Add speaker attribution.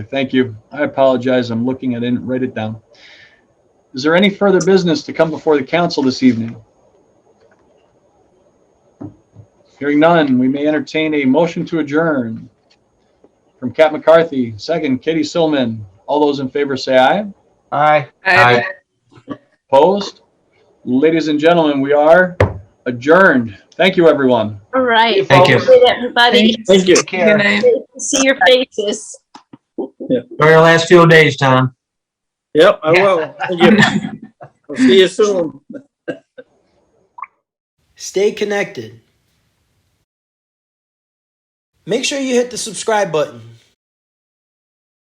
Speaker 1: Thank you. I apologize. I'm looking. I didn't write it down. Is there any further business to come before the council this evening? Hearing none, we may entertain a motion to adjourn. From Cat McCarthy, second Katie Silman. All those in favor say aye.
Speaker 2: Aye.
Speaker 3: Aye.
Speaker 1: Opposed? Ladies and gentlemen, we are adjourned. Thank you, everyone.
Speaker 4: All right.
Speaker 2: Thank you.
Speaker 4: Good, Everybody,
Speaker 5: Thank you.
Speaker 2: Take care.
Speaker 3: Good night.
Speaker 4: see your faces.
Speaker 2: Enjoy your last few days, Tom.
Speaker 5: Yep, I will. Thank you. I'll see you soon.
Speaker 6: Stay connected. Make sure you hit the subscribe button.